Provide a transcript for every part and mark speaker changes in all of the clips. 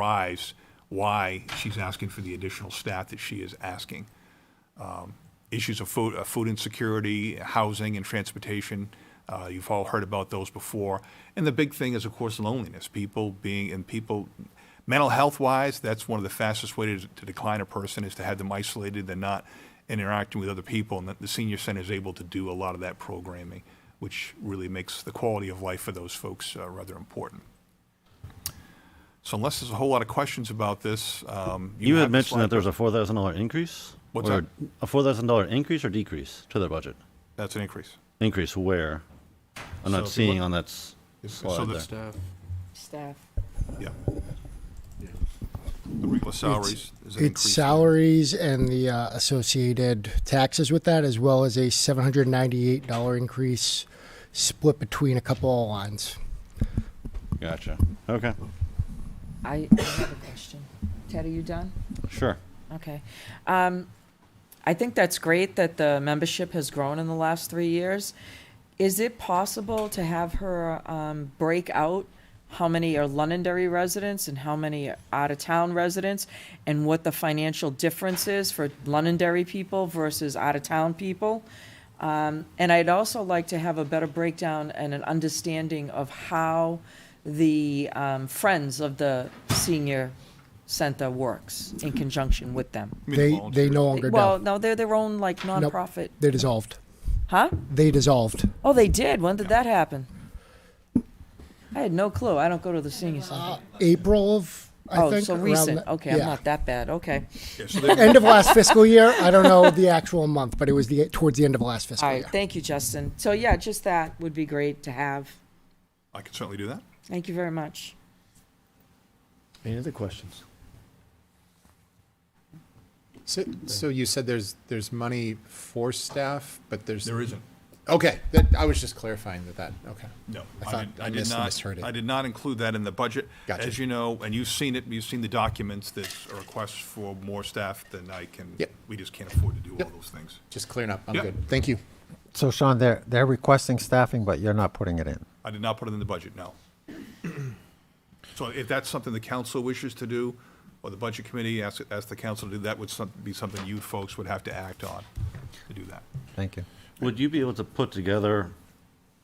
Speaker 1: drives why she's asking for the additional staff that she is asking. Um, Issues of food, uh, food insecurity, housing and transportation, uh, you've all heard about those before. And the big thing is, of course, loneliness, people being, and people, mental health wise, that's one of the fastest ways to- to decline a person is to have them isolated, they're not interacting with other people. And that the senior center is able to do a lot of that programming, which really makes the quality of life for those folks uh, rather important. So unless there's a whole lot of questions about this, um,
Speaker 2: You
Speaker 1: have
Speaker 2: had
Speaker 1: the
Speaker 2: mentioned
Speaker 1: slide.
Speaker 2: that there was a four thousand dollar increase?
Speaker 1: What's
Speaker 2: or
Speaker 1: that?
Speaker 2: A four thousand dollar increase or decrease to their budget?
Speaker 1: That's an increase.
Speaker 2: Increase where?
Speaker 1: So
Speaker 2: I'm
Speaker 1: if you
Speaker 2: not seeing on that s-
Speaker 1: Yes, so
Speaker 2: slide
Speaker 1: the-
Speaker 2: there.
Speaker 3: Staff.
Speaker 4: staff.
Speaker 1: Yeah. The regular salaries is an
Speaker 5: It's
Speaker 1: increase.
Speaker 5: salaries and the uh, associated taxes with that, as well as a $798 increase split between a couple of lines.
Speaker 2: Gotcha. Okay,
Speaker 4: I, I have a question. Ted, are you done?
Speaker 2: sure.
Speaker 4: Okay. Um, I think that's great that the membership has grown in the last three years. Is it possible to have her um, break out how many are Londonderry residents and how many are out-of-town residents? And what the financial difference is for Londonderry people versus out-of-town people? Um, and I'd also like to have a better breakdown and an understanding of how the um, Friends of the Senior Center works in conjunction with them.
Speaker 1: You mean the
Speaker 5: They, they
Speaker 1: volunteers.
Speaker 5: no longer
Speaker 4: Well,
Speaker 5: do.
Speaker 4: no, they're their own like nonprofit,
Speaker 5: They dissolved.
Speaker 4: huh?
Speaker 5: They dissolved.
Speaker 4: Oh, they did. When did that happen? I had no clue. I don't go to the senior center.
Speaker 5: Uh, April of, I
Speaker 4: Oh,
Speaker 5: think.
Speaker 4: so
Speaker 5: around
Speaker 4: recent.
Speaker 5: the-
Speaker 4: Okay, I'm
Speaker 5: yeah.
Speaker 4: not that bad. Okay.
Speaker 1: Yeah, so they-
Speaker 5: End of last fiscal year. I don't know the actual month, but it was the, towards the end of last fiscal
Speaker 4: All
Speaker 5: year.
Speaker 4: right. Thank you, Justin. So yeah, just that would be great to have.
Speaker 1: I can certainly do that.
Speaker 4: Thank you very much.
Speaker 6: Any other questions?
Speaker 7: So, so you said there's, there's money for staff, but there's.
Speaker 1: There isn't.
Speaker 7: Okay, that, I was just clarifying that, that, okay.
Speaker 1: No,
Speaker 7: I
Speaker 1: I
Speaker 7: thought
Speaker 1: did-
Speaker 7: I
Speaker 1: I did
Speaker 7: mis-
Speaker 1: not,
Speaker 7: misheard it.
Speaker 1: I did not include that in the budget.
Speaker 7: Gotcha.
Speaker 1: As you know, and you've seen it, you've seen the documents, that are requests for more staff than I can,
Speaker 7: Yep.
Speaker 1: we just can't afford to do all
Speaker 7: Yep.
Speaker 1: those things.
Speaker 7: Just clearing up, I'm
Speaker 1: Yeah.
Speaker 7: good, thank you.
Speaker 8: So Sean, they're, they're requesting staffing, but you're not putting it in.
Speaker 1: I did not put it in the budget, no. So if that's something the council wishes to do, or the budget committee asks, asks the council to do, that would some- be something you folks would have to act on to do that.
Speaker 8: Thank you.
Speaker 2: Would you be able to put together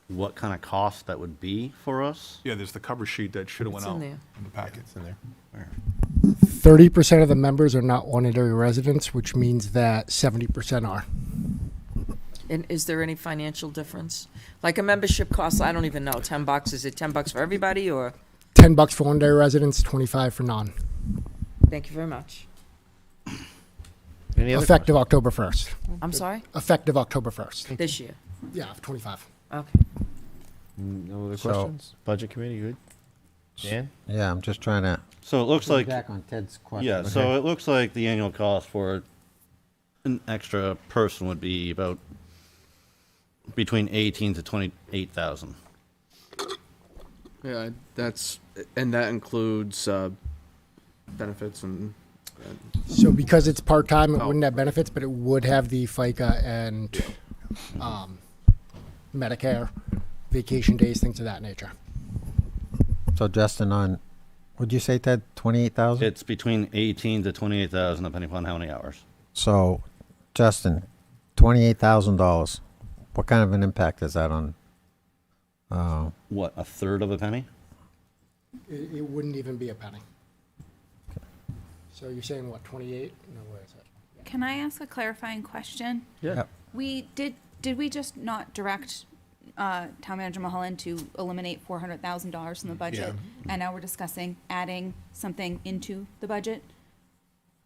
Speaker 2: what kind of cost that would be for us?
Speaker 1: Yeah, there's the cover sheet that should have went
Speaker 4: It's in
Speaker 1: out in
Speaker 4: there.
Speaker 1: the packet.
Speaker 7: It's in there.
Speaker 5: Thirty percent of the members are not Londonderry residents, which means that seventy percent are.
Speaker 4: And is there any financial difference? Like a membership costs, I don't even know, ten bucks. Is it ten bucks for everybody or?
Speaker 5: Ten bucks for Londonderry residents, twenty-five for non,
Speaker 4: Thank you very much.
Speaker 6: Any other
Speaker 5: effective October first.
Speaker 4: I'm sorry?
Speaker 5: Effective October first.
Speaker 4: This year.
Speaker 5: Yeah, twenty-five.
Speaker 4: Okay.
Speaker 6: questions? No other
Speaker 8: So-
Speaker 6: questions? Budget committee, good? Dan?
Speaker 8: Yeah, I'm just trying to.
Speaker 2: So it looks like,
Speaker 8: Back on Ted's question.
Speaker 2: yeah, so it looks like the annual cost for an extra person would be about between eighteen to twenty-eight thousand.
Speaker 3: Yeah, that's, and that includes, uh, benefits and,
Speaker 5: So because it's part-time, it
Speaker 3: Oh.
Speaker 5: wouldn't have benefits, but it would have the FICA and, um, Medicare, vacation days, things of that nature.
Speaker 8: So Justin on, would you say Ted, twenty-eight thousand?
Speaker 2: It's between eighteen to twenty-eight thousand depending upon how many hours.
Speaker 8: So Justin, twenty-eight thousand dollars. What kind of an impact is that on?
Speaker 2: What, a third of a penny?
Speaker 5: It, it wouldn't even be a penny. So you're saying what, twenty-eight? No, where is it?
Speaker 9: Can I ask a clarifying question?
Speaker 8: Yeah.
Speaker 9: We did, did we just not direct uh, Town Manager Mulholland to eliminate four hundred thousand dollars from the budget? And now we're discussing adding something into the budget?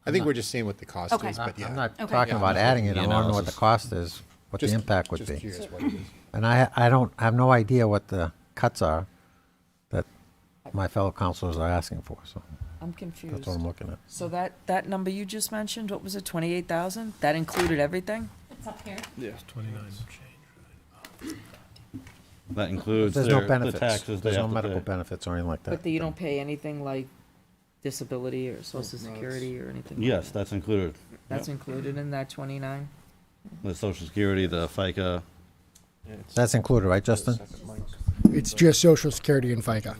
Speaker 7: I think we're just seeing what the cost
Speaker 9: Okay.
Speaker 7: is, but yeah.
Speaker 8: I'm not
Speaker 9: Okay.
Speaker 8: talking
Speaker 9: Yeah,
Speaker 8: about adding it.
Speaker 2: the
Speaker 8: I want to know what the
Speaker 2: analysis.
Speaker 8: cost is, what the
Speaker 7: Just-
Speaker 8: impact would
Speaker 7: just
Speaker 8: be.
Speaker 7: curious what it is.
Speaker 8: And I, I don't, I have no idea what the cuts are that my fellow counselors are asking for, so
Speaker 4: I'm confused.
Speaker 8: that's what I'm looking at.
Speaker 4: So that, that number you just mentioned, what was it, twenty-eight thousand? That included everything?
Speaker 9: It's up here.
Speaker 2: That includes
Speaker 8: There's no
Speaker 2: their, the
Speaker 8: benefits.
Speaker 2: taxes they
Speaker 8: There's no
Speaker 2: have
Speaker 8: medical
Speaker 2: to pay.
Speaker 8: benefits or anything like that.
Speaker 4: But you don't pay anything like disability or social security or anything?
Speaker 2: Yes, that's included.
Speaker 4: That's included in that twenty-nine?
Speaker 2: The social security, the FICA,
Speaker 8: That's included, right, Justin?
Speaker 5: It's just social security and FICA.